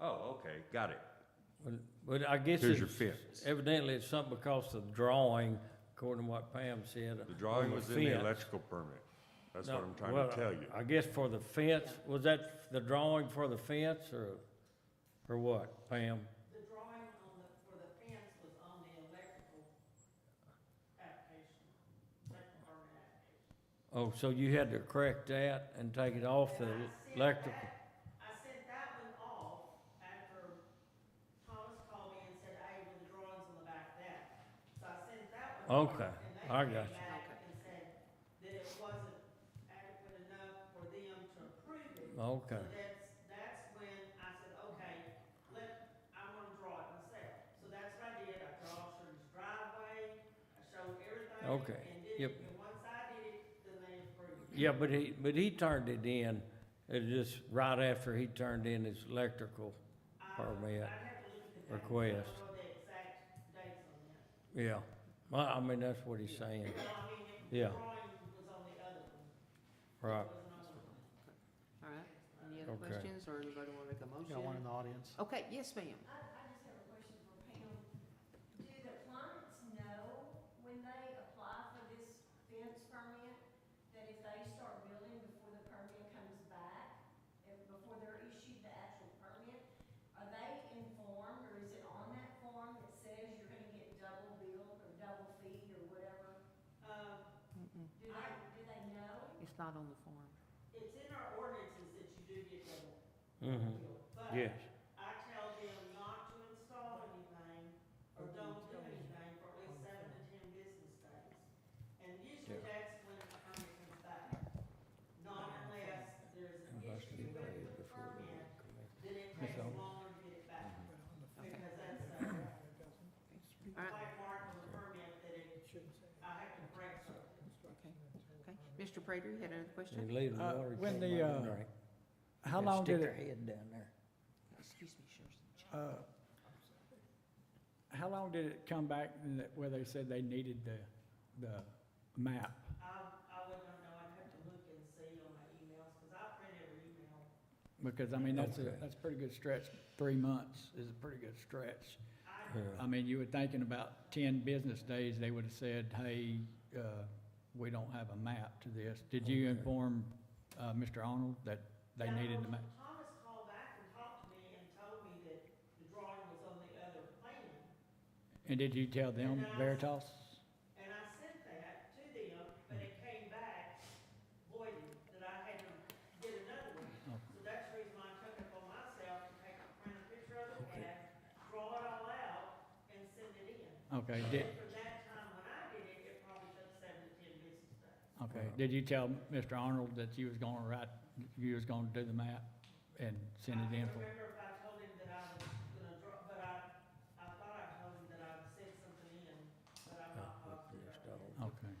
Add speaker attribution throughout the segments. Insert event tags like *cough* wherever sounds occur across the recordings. Speaker 1: Oh, Okay, got it.
Speaker 2: But- But I guess
Speaker 1: Here's your
Speaker 2: it's
Speaker 1: fence.
Speaker 2: evidently it's something because of the drawing, according to what Pam said.
Speaker 1: The drawing
Speaker 2: on
Speaker 1: was in the
Speaker 2: fence.
Speaker 1: electrical permit. That's what
Speaker 2: No,
Speaker 1: I'm trying
Speaker 2: well,
Speaker 1: to tell you.
Speaker 2: I guess for the fence, was that the drawing for the fence or, or what, Pam?
Speaker 3: The drawing on the, for the fence was on the electrical application, electrical permit application.
Speaker 2: Oh, so you had to correct that and take it off the
Speaker 3: And I sent
Speaker 2: electrical?
Speaker 3: that- I sent that one off after Thomas called me and said, hey, with the drawings on the back of that. So I sent that one. off,
Speaker 2: Okay,
Speaker 3: and they
Speaker 2: I
Speaker 3: came
Speaker 2: got you.
Speaker 3: back And said that it wasn't adequate enough for them to approve it.
Speaker 2: Okay,
Speaker 3: So that's, that's when I said, okay, let, I wanna draw it myself. So that's what I did, I draw Shirley's driveway, I showed everything.
Speaker 2: Okay,
Speaker 3: And did
Speaker 2: yep.
Speaker 3: it, and once I did it, then they approved. it.
Speaker 2: yeah, but he, but he turned it in, it just right after he turned in his electrical,
Speaker 3: I-
Speaker 2: Permit
Speaker 3: I'd have to look at that.
Speaker 2: request.
Speaker 3: I don't know the exact dates on that.
Speaker 2: yeah. Well, I mean, that's what he's saying,
Speaker 3: But I mean, if the
Speaker 2: Yeah.
Speaker 3: drawing was on the other one. it
Speaker 2: right.
Speaker 3: wasn't on the one.
Speaker 4: All right, any other
Speaker 2: Okay.
Speaker 4: questions, or anybody want to make a motion?
Speaker 5: Got one in the audience.
Speaker 4: Okay, yes, ma'am.
Speaker 6: I, I just have a question for Pam. Do the clients know when they apply for this fence permit, that if they start building before the permit comes back, and before they're issued the actual permit, are they informed, or is it on that form that says you're gonna get double billed or double fee or whatever?
Speaker 3: Uh,
Speaker 6: Do they, do they know?
Speaker 4: It's not on the form.
Speaker 3: it's in our ordinances that you do get double
Speaker 2: hmm
Speaker 3: billed, but.
Speaker 2: yes,
Speaker 3: I tell them not to install anything or don't do anything for at least seven to ten business days. And usually that's when the permit comes back, not unless there's an issue with the permit, then it takes longer to get it back.
Speaker 4: Okay.
Speaker 3: Because that's, uh,
Speaker 4: All right,
Speaker 3: like mark on the permit that it, I have to break something.
Speaker 4: okay, okay. Mr. Prater, you had another question?
Speaker 2: you leave the
Speaker 5: Uh,
Speaker 2: water.
Speaker 5: when
Speaker 2: till
Speaker 5: the,
Speaker 2: my
Speaker 5: uh,
Speaker 2: drink.
Speaker 5: How long did it,
Speaker 2: head down there.
Speaker 4: Excuse me, Shirley.
Speaker 5: uh, how long did it come back in that- where they said they needed the, the map?
Speaker 3: I, I wouldn't know, I'd have to look and see on my emails, because I print every email.
Speaker 5: Because, I mean, that's a,
Speaker 2: Okay.
Speaker 5: that's a pretty good stretch. Three months is a pretty good stretch.
Speaker 3: I
Speaker 2: Yeah.
Speaker 5: I mean, you were thinking about ten business days, they would have said, hey, uh, we don't have a map to this. Did you
Speaker 2: Okay.
Speaker 5: inform, uh, Mr. Arnold that they
Speaker 3: Now,
Speaker 5: needed the map?
Speaker 3: Thomas called back and talked to me and told me that the drawing was on the other plan.
Speaker 5: And did you tell them Veritas?
Speaker 3: And I sent that to them, but it came back voided, that I had to get another one.
Speaker 5: Oh.
Speaker 3: So that's the reason why I took it upon myself to take a print a picture of the plan, draw it all out, and send it in.
Speaker 5: Okay,
Speaker 3: And
Speaker 5: did,
Speaker 3: From that time when I did it, it probably took seven to ten business days.
Speaker 5: Okay,
Speaker 2: Uh,
Speaker 5: did you tell Mr. Arnold that you was gonna write, you was gonna do the map and send it in
Speaker 3: I
Speaker 5: for?
Speaker 3: remember if I told him that I was gonna draw, but I, I thought I told him that I sent something in, but I'm not positive.
Speaker 5: Okay.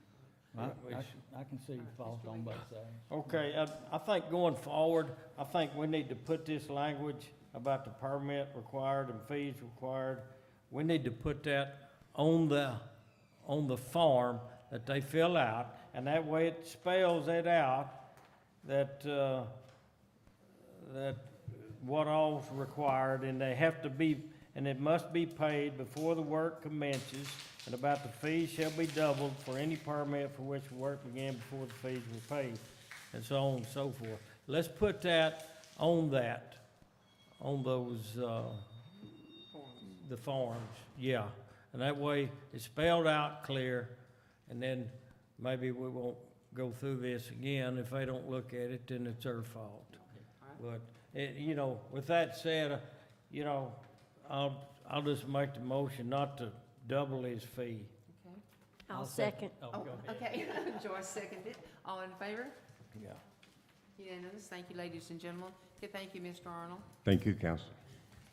Speaker 5: Well, I, I can- I can see fault on both sides.
Speaker 2: Okay, I, I think going forward, I think we need to put this language about the permit required and fees required. We need to put that on the, on the form that they fill out, and that way it spells it out that, uh, that what all's required, and they have to be, and it must be paid before the work commences, and about the fees shall be doubled for any permit for which work began before the fees were paid, and so on and so forth. Let's put that on that, on those, uh, the forms, yeah. And that way, it's spelled out clear, and then maybe we won't go through this again. If they don't look at it, then it's their fault. But, eh, you know, with that said, uh, you know, I'll, I'll just make the motion not to double his fee.
Speaker 4: Okay.
Speaker 2: I'll second.
Speaker 4: Oh, okay, *laughs* Joyce seconded. All in favor?
Speaker 2: Yeah.
Speaker 4: Unanimous. Thank you, ladies and gentlemen. Okay, thank you, Mr. Arnold.
Speaker 1: Thank you, council.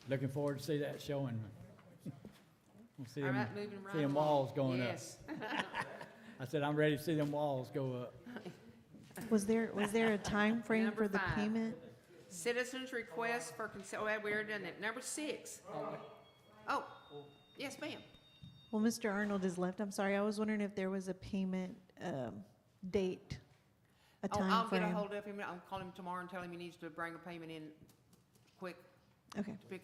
Speaker 5: Looking forward to see
Speaker 4: *laughs*
Speaker 5: that showing. We'll see
Speaker 4: All
Speaker 5: them,
Speaker 4: right, moving right
Speaker 5: see them
Speaker 4: along.
Speaker 5: walls going up.
Speaker 4: Yes.
Speaker 5: I said, I'm ready to see them walls go up.
Speaker 7: Was
Speaker 4: *laughs*
Speaker 7: there, was there a time frame
Speaker 4: Number
Speaker 7: for the
Speaker 4: five.
Speaker 7: payment?
Speaker 4: Citizens' request for consent, oh, we already done that. Number six. Oh, yes, ma'am.
Speaker 7: Well, Mr. Arnold is left, I'm sorry, I was wondering if there was a payment, um, date, a
Speaker 4: Oh, I'll
Speaker 7: time
Speaker 4: get
Speaker 7: frame.
Speaker 4: a hold of him. I'll call him tomorrow and tell him he needs to bring a payment in quick
Speaker 7: Okay.
Speaker 4: to pick